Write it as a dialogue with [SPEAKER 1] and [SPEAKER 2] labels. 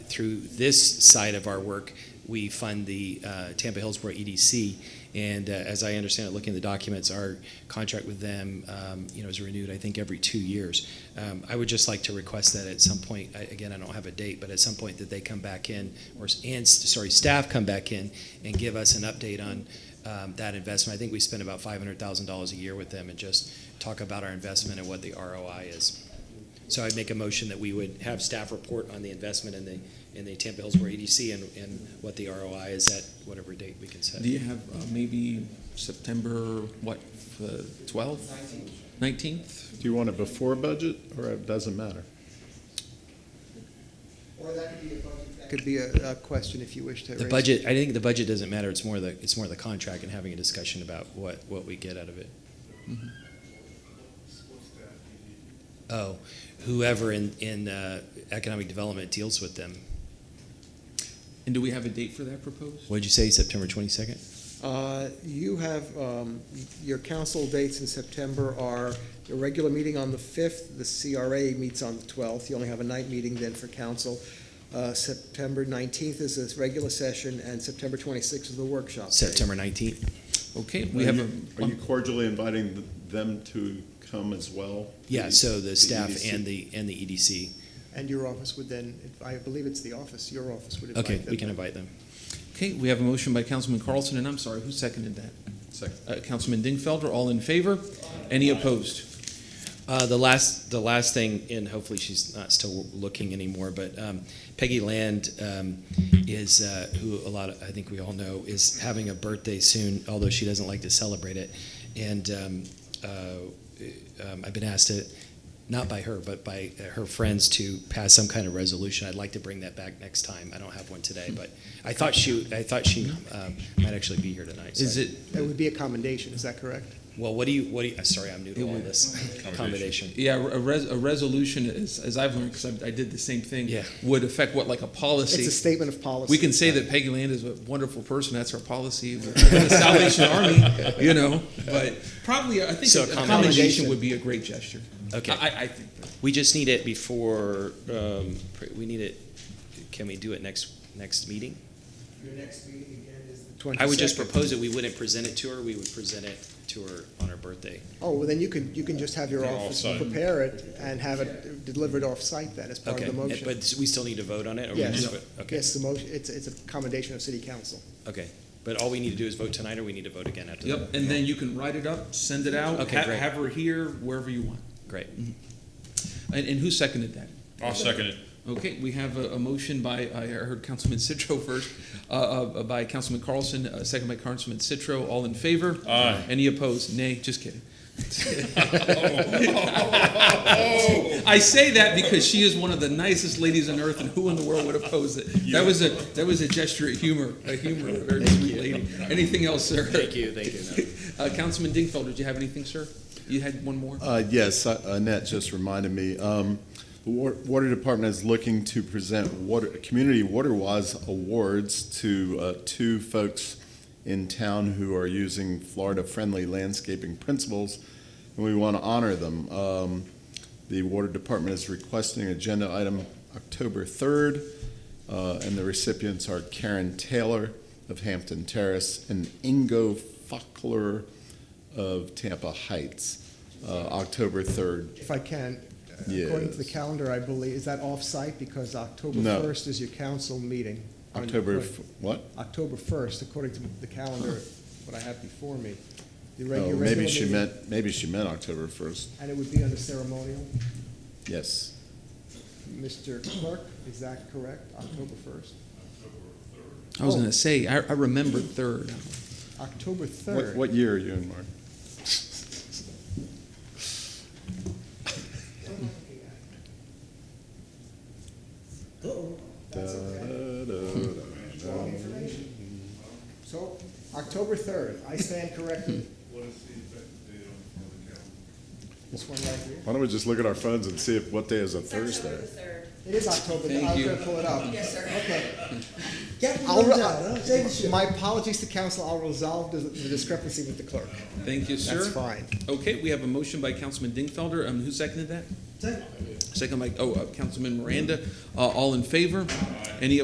[SPEAKER 1] through this side of our work, we fund the uh, Tampa Hillsborough EDC. And uh, as I understand it, looking at the documents, our contract with them, um, you know, is renewed, I think, every two years. Um, I would just like to request that at some point, I- again, I don't have a date, but at some point that they come back in, or, s- and, s- sorry, staff come back in and give us an update on um, that investment. I think we spend about $500,000 a year with them and just talk about our investment and what the ROI is. So I'd make a motion that we would have staff report on the investment in the, in the Tampa Hillsborough EDC and, and what the ROI is at whatever date we can set.
[SPEAKER 2] Do you have uh, maybe September, what, the 12th? 19th?
[SPEAKER 3] Do you want it before budget, or it doesn't matter?
[SPEAKER 4] Or that could be a budget. That could be a, a question if you wish to raise.
[SPEAKER 1] The budget, I think the budget doesn't matter, it's more the, it's more the contract and having a discussion about what, what we get out of it. Oh, whoever in, in uh, economic development deals with them.
[SPEAKER 2] And do we have a date for that proposed?
[SPEAKER 1] What'd you say, September twenty-second?
[SPEAKER 4] Uh, You have, um, your council dates in September are your regular meeting on the 5th, the CRA meets on the 12th. You only have a night meeting then for council. Uh, September 19th is this regular session, and September 26th is the workshop. day.
[SPEAKER 1] September nineteenth?
[SPEAKER 2] Okay, we have
[SPEAKER 3] Are you-
[SPEAKER 2] a,
[SPEAKER 3] Are you cordially inviting th- them to come as well? E
[SPEAKER 1] Yeah, so the staff
[SPEAKER 3] EDC?
[SPEAKER 1] and the, and the E EDC.
[SPEAKER 4] And your office would then, I believe it's the office, your office would invite them.
[SPEAKER 1] Okay, we can invite them.
[SPEAKER 2] um, okay, we have a motion by Councilman Carlson, and I'm sorry, who seconded that?
[SPEAKER 3] Second.
[SPEAKER 2] Uh, Councilman Dingfelder, all in favor? Any opposed?
[SPEAKER 1] Uh, the last, the last thing, and hopefully she's not still looking anymore, but um, Peggy Land um, is uh, who a lot of I think we all know is having a birthday soon, although she doesn't like to celebrate it. And um, uh, um, I've been asked to, not by her, but by her friends, to pass some kind of resolution. I'd like to bring that back next time. I don't have one today, but I thought she, I thought she um, might actually be here tonight. so
[SPEAKER 2] Is
[SPEAKER 1] I-
[SPEAKER 2] it,
[SPEAKER 4] It would be a commendation, is that correct?
[SPEAKER 1] Well, what do you? What do you? Sorry, I'm new to
[SPEAKER 2] It
[SPEAKER 1] all
[SPEAKER 2] would-
[SPEAKER 1] this accommodation.
[SPEAKER 2] yeah, a res, a resolution, is- as I've learned, because I did the same thing.
[SPEAKER 1] Yeah.
[SPEAKER 2] Would affect what, like a policy?
[SPEAKER 4] It's a statement of policy.
[SPEAKER 2] We can say that Peggy Land is a wonderful person, that's our policy, of the Salvation Army, you know, but probably, I think
[SPEAKER 1] So
[SPEAKER 2] a
[SPEAKER 1] accommodation.
[SPEAKER 2] commendation would be a great gesture.
[SPEAKER 1] Okay.
[SPEAKER 2] I, I think, that-
[SPEAKER 1] We just need it before. Um, pr- we need it. Can we do it next next meeting?
[SPEAKER 4] Your next meeting again is the
[SPEAKER 1] I would just
[SPEAKER 4] 22nd.
[SPEAKER 1] propose that we wouldn't present it to her. We would present it to her on her birthday.
[SPEAKER 4] Oh, well, then you can, you can just have your
[SPEAKER 3] Yeah,
[SPEAKER 4] office
[SPEAKER 3] offsite.
[SPEAKER 4] prepare it and have it delivered off-site then as part of
[SPEAKER 1] okay,
[SPEAKER 4] the motion.
[SPEAKER 1] but we still need to vote on it. Or
[SPEAKER 4] Yes.
[SPEAKER 1] We just vote? Okay.
[SPEAKER 4] Yes, the motion, it's, it's a commendation of city council.
[SPEAKER 1] Okay. But all we need to do is vote tonight, or we need to vote again after.
[SPEAKER 2] yep,
[SPEAKER 1] That.
[SPEAKER 2] and then you can write it up, send it out,
[SPEAKER 1] Okay,
[SPEAKER 2] ha-
[SPEAKER 1] great.
[SPEAKER 2] have her here, wherever you want.
[SPEAKER 1] Great.
[SPEAKER 2] And, and who seconded that?
[SPEAKER 5] I'll second it.
[SPEAKER 2] Okay, we have a, a motion by, I heard Councilman Citro first, uh, uh, by Councilman Carlson, uh, second by Councilman Citro, all in favor?
[SPEAKER 5] Aye.
[SPEAKER 2] Any opposed? Nay, just kidding. I say that because she is one of the nicest ladies on earth, and who in the world would oppose it? That was a, that was a gesture of humor, a humor, a very sweet lady. Anything else, sir?
[SPEAKER 1] Thank you. Thank you.
[SPEAKER 2] Uh, Councilman Dingfelder, did you have anything, sir? You had one more?
[SPEAKER 3] Uh, Yes, uh, Annette just reminded me. um, The wa- Water Department is looking to present water, Community Water Wise Awards to uh, two folks in town who are using Florida-friendly landscaping principles, and we want to honor them. Um, The Water Department is requesting agenda item October 3rd, uh, and the recipients are Karen Taylor of Hampton Terrace and Ingo Fockler of Tampa Heights uh, October 3rd.
[SPEAKER 4] If I can, uh, according to the
[SPEAKER 3] Yes.
[SPEAKER 4] calendar, I believe, is that off-site because October
[SPEAKER 3] No.
[SPEAKER 4] 1st is your council meeting? on-
[SPEAKER 3] October, f- what?
[SPEAKER 4] October 1st, according to the calendar, what I have before me. The regu-
[SPEAKER 3] Oh,
[SPEAKER 4] regular
[SPEAKER 3] maybe she
[SPEAKER 4] meeting,
[SPEAKER 3] meant, maybe she meant October 1st.
[SPEAKER 4] And it would be under ceremonial.
[SPEAKER 3] Yes.
[SPEAKER 4] Mr. Clerk, is that correct? October 1st?
[SPEAKER 2] I was gonna say, I, I remembered third.
[SPEAKER 4] October 3rd.
[SPEAKER 3] What, what year are you in, Mark?
[SPEAKER 4] That's okay.
[SPEAKER 3] Da-da-da-da.
[SPEAKER 4] Wrong information. So, October 3rd, I stand corrected. This one right here.
[SPEAKER 3] Why don't we just look at our phones and see if, what day is a Thursday?
[SPEAKER 4] It is October,
[SPEAKER 2] Thank
[SPEAKER 4] I was
[SPEAKER 2] you.
[SPEAKER 4] gonna pull it up.
[SPEAKER 6] Yes, sir.
[SPEAKER 4] Okay. I'll, I'll- my apologies to council, I'll resolve the the discrepancy with the clerk.
[SPEAKER 2] Thank you, sir.
[SPEAKER 4] That's fine.
[SPEAKER 2] Okay, we have a motion by Councilman Dingfelder. Um, who seconded that? Second by, oh, uh, Councilman Miranda. Uh, All in favor? Any